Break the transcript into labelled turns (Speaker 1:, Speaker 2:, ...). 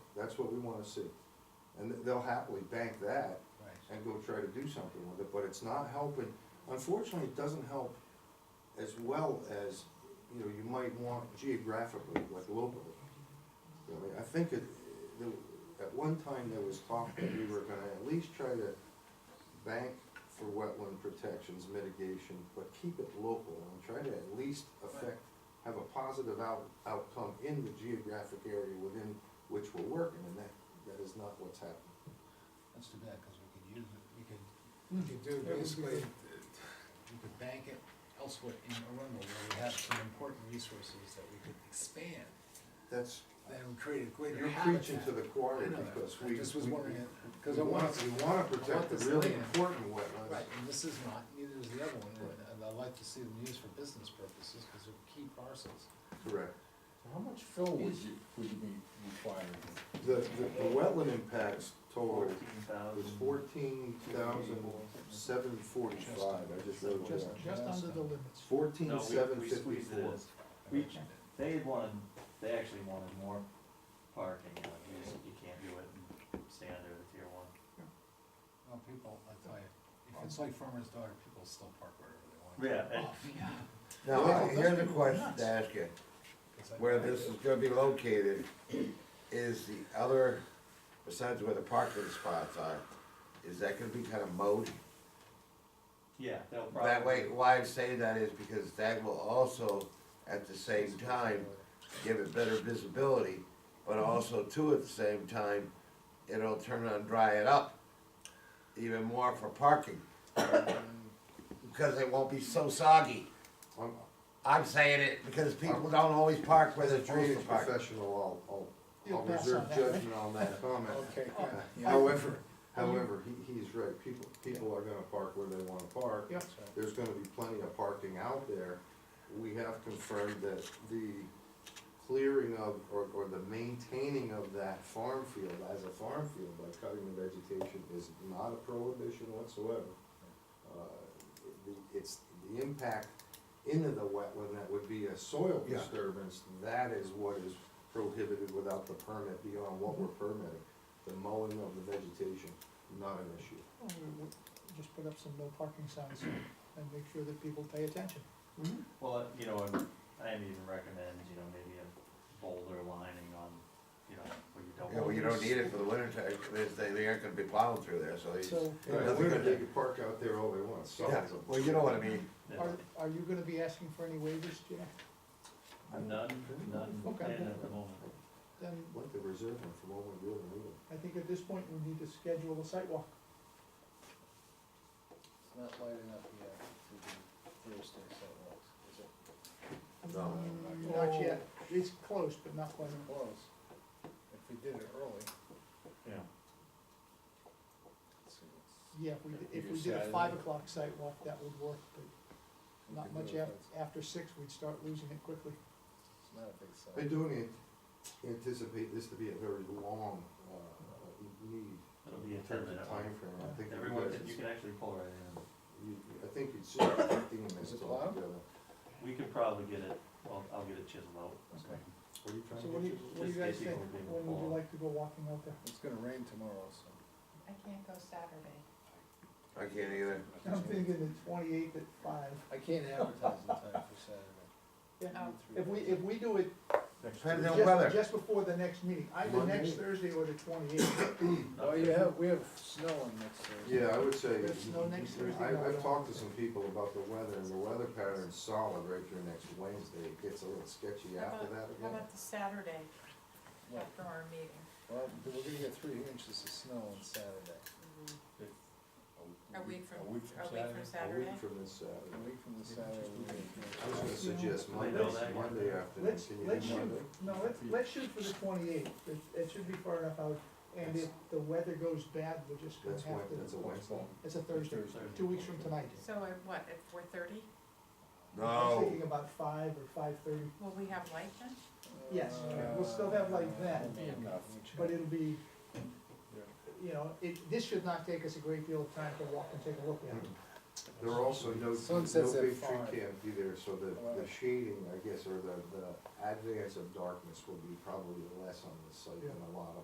Speaker 1: That's what we wanna see. And they'll happily bank that
Speaker 2: Right.
Speaker 1: and go try to do something with it, but it's not helping. Unfortunately, it doesn't help as well as, you know, you might want geographically, like globally. You know, I mean, I think it, the- at one time there was talk that we were gonna at least try to bank for wetland protections, mitigation, but keep it local and try to at least affect, have a positive out, outcome in the geographic area within which we're working, and that, that is not what's happening.
Speaker 2: That's too bad, cause we could use it, we could, we could do,
Speaker 3: Yeah, we
Speaker 2: basically,
Speaker 3: could.
Speaker 2: we could bank it elsewhere in Arundel, where we have some important resources that we could expand.
Speaker 1: That's,
Speaker 2: Then we create a greater
Speaker 1: You're
Speaker 2: habitat.
Speaker 1: preaching to the choir
Speaker 2: I know that.
Speaker 1: because
Speaker 2: I
Speaker 1: we.
Speaker 2: just was
Speaker 1: we-
Speaker 2: wondering,
Speaker 1: We
Speaker 2: cause I want,
Speaker 1: want, we want to
Speaker 2: I want
Speaker 1: protect the
Speaker 2: this
Speaker 1: really
Speaker 2: land.
Speaker 1: important wetlands.
Speaker 2: right, and this is not, neither is the other one, and, and I'd like to see them used for business purposes, cause they're key parcels.
Speaker 1: Correct.
Speaker 3: So How much fill would you, would you be requiring?
Speaker 1: The, the, the wetland impacts total was
Speaker 4: thousand.
Speaker 1: fourteen thousand seven forty-five, I just wrote it
Speaker 3: Just,
Speaker 1: down.
Speaker 3: just under the limit.
Speaker 1: Fourteen
Speaker 4: No,
Speaker 1: seven
Speaker 4: we, we squeezed it in.
Speaker 1: fifty-four.
Speaker 4: We, they had wanted, they actually wanted more parking, like, you just- you can't do it and stay under the tier one.
Speaker 2: Well, people, I tell you, if it's like farmer's daughter, people still park wherever they want.
Speaker 4: Yeah, and-
Speaker 2: Oh, yeah.
Speaker 5: Now,
Speaker 2: Wow,
Speaker 5: here's
Speaker 2: those
Speaker 5: a
Speaker 2: are
Speaker 5: question
Speaker 2: nuts.
Speaker 5: to ask you,
Speaker 2: 'Cause I-
Speaker 5: where this is gonna be located, is the other, besides where the parking spots are, is that gonna be kind of mowed?
Speaker 4: Yeah, they'll probably.
Speaker 5: That way, why I say that is because that will also, at the same time, give it better visibility, but also too, at the same time, it'll turn and dry it up even more for parking, because it won't be so soggy.
Speaker 1: I'm,
Speaker 5: I'm saying it because people don't always park where
Speaker 1: as a
Speaker 5: they're supposed
Speaker 1: drainage
Speaker 5: to park.
Speaker 1: professional, I'll, I'll,
Speaker 3: You'll
Speaker 1: I'll
Speaker 3: pass
Speaker 1: reserve
Speaker 3: on that, right?
Speaker 1: judgment on that comment.
Speaker 3: Okay.
Speaker 1: Uh,
Speaker 3: Yeah.
Speaker 1: However, however, he, he's right, people, people are gonna park where they wanna park.
Speaker 3: Yep.
Speaker 2: So,
Speaker 1: there's gonna be plenty of parking out there. We have confirmed that the clearing of, or, or the maintaining of that farm field as a farm field by cutting the vegetation is not a prohibition whatsoever. Uh, the- It's the impact into the wetland that would be a soil
Speaker 5: Yeah.
Speaker 1: disturbance, that is what is prohibited without the permit beyond what we're permitting. The mowing of the vegetation, not an issue.
Speaker 3: Well, we- we Just put up some no parking signs and make sure that people pay attention.
Speaker 4: Well, uh, you know, and I'd even recommend, you know, maybe a boulder lining on, you know, where you don't.
Speaker 5: Yeah, well, you don't need it for the winter time, there's, they, they aren't gonna be plowing through there, so you,
Speaker 3: So
Speaker 1: In the winter, they could park out there all they want, so.
Speaker 5: yeah, well, you know what I mean.
Speaker 3: are, are you gonna be asking for any waivers, Jack?
Speaker 4: None, none,
Speaker 3: Okay.
Speaker 4: planned at the moment.
Speaker 3: Then
Speaker 1: Like the reserve one for when we really need it.
Speaker 3: I think at this point, we need to schedule a site walk.
Speaker 2: It's not light enough yet to do Thursday sidewalks, is it?
Speaker 5: No.
Speaker 3: Mm, Not yet, it's close, but not quite.
Speaker 2: Close. If we did it early.
Speaker 4: Yeah.
Speaker 2: let's see,
Speaker 3: Yeah, if we, did- if we did a five o'clock site walk, that would work, but
Speaker 2: we
Speaker 3: not
Speaker 2: could do
Speaker 3: much
Speaker 2: it,
Speaker 3: after,
Speaker 2: but
Speaker 3: after six, we'd start losing it quickly.
Speaker 2: It's not a big
Speaker 1: I
Speaker 2: site.
Speaker 1: do an- anticipate this to be a very long, uh, need
Speaker 4: It'll be a
Speaker 1: in terms of
Speaker 4: ten-minute one.
Speaker 1: timeframe. I think you
Speaker 4: Everyone,
Speaker 1: guys,
Speaker 4: can- you can actually pull right in.
Speaker 1: you- I think you'd see fifteen minutes
Speaker 2: Is it loud?
Speaker 1: altogether.
Speaker 4: We could probably get it, well, I'll get it chiseled out.
Speaker 2: Okay.
Speaker 1: What are you trying
Speaker 3: So
Speaker 1: to
Speaker 3: what do
Speaker 1: get
Speaker 3: you, what do you guys think, when would you like to go walking out there?
Speaker 2: It's gonna rain tomorrow, so.
Speaker 6: I can't go Saturday.
Speaker 5: I can't either.
Speaker 3: I'm thinking the twenty-eighth at five.
Speaker 2: I can't advertise in time for Saturday.
Speaker 3: Yeah.
Speaker 6: Oh.
Speaker 3: If we, if we do it
Speaker 5: Depends on
Speaker 3: just,
Speaker 5: weather.
Speaker 3: just before the next meeting, either
Speaker 1: Monday?
Speaker 3: next Thursday or the twenty-eighth,
Speaker 2: Oh, you have, we have snow on next Thursday.
Speaker 1: Yeah, I would say.
Speaker 3: There's no next Thursday,
Speaker 1: I,
Speaker 3: no,
Speaker 1: I've
Speaker 3: no.
Speaker 1: talked to some people about the weather, and the weather pattern's solid right through next Wednesday. It gets a little sketchy
Speaker 6: How
Speaker 1: after
Speaker 6: about-
Speaker 1: that
Speaker 6: How
Speaker 1: again.
Speaker 6: about the Saturday
Speaker 2: Well,
Speaker 6: after our meeting?
Speaker 2: Well, we're gonna get three inches of snow on Saturday,
Speaker 6: A week
Speaker 5: A week
Speaker 6: from, a week from
Speaker 1: A
Speaker 6: Saturday?
Speaker 1: week from
Speaker 2: a
Speaker 1: this Saturday.
Speaker 2: week from the Saturday. we're gonna get-
Speaker 1: I was gonna suggest
Speaker 4: They
Speaker 1: Monday,
Speaker 4: know that.
Speaker 1: Monday afternoon.
Speaker 3: let's,
Speaker 1: Can you do
Speaker 3: let's
Speaker 1: Monday?
Speaker 3: shoot, no, let's, let's shoot for the twenty-eighth, it, it should be far enough out, and if the weather goes bad, we're just gonna
Speaker 1: That's
Speaker 3: have
Speaker 1: Wednesday, that's a
Speaker 3: to,
Speaker 1: Wednesday.
Speaker 3: it's a Thursday, two weeks from tonight.
Speaker 6: So at what, at four thirty?
Speaker 3: I'm
Speaker 1: Oh.
Speaker 5: No,
Speaker 3: thinking about five or five-thirty,
Speaker 6: Will we have light then?
Speaker 3: Yes, we'll still have like that, but it'll be, you know, it, this should not take us a great deal of time to walk and take a look at it.
Speaker 1: There are also no, no big
Speaker 2: Sunsets at
Speaker 1: tree
Speaker 2: five.
Speaker 1: can't be there, so the, the
Speaker 2: Eleven.
Speaker 1: shading, I guess, or the, the advance of darkness will be probably less on the site than a lot of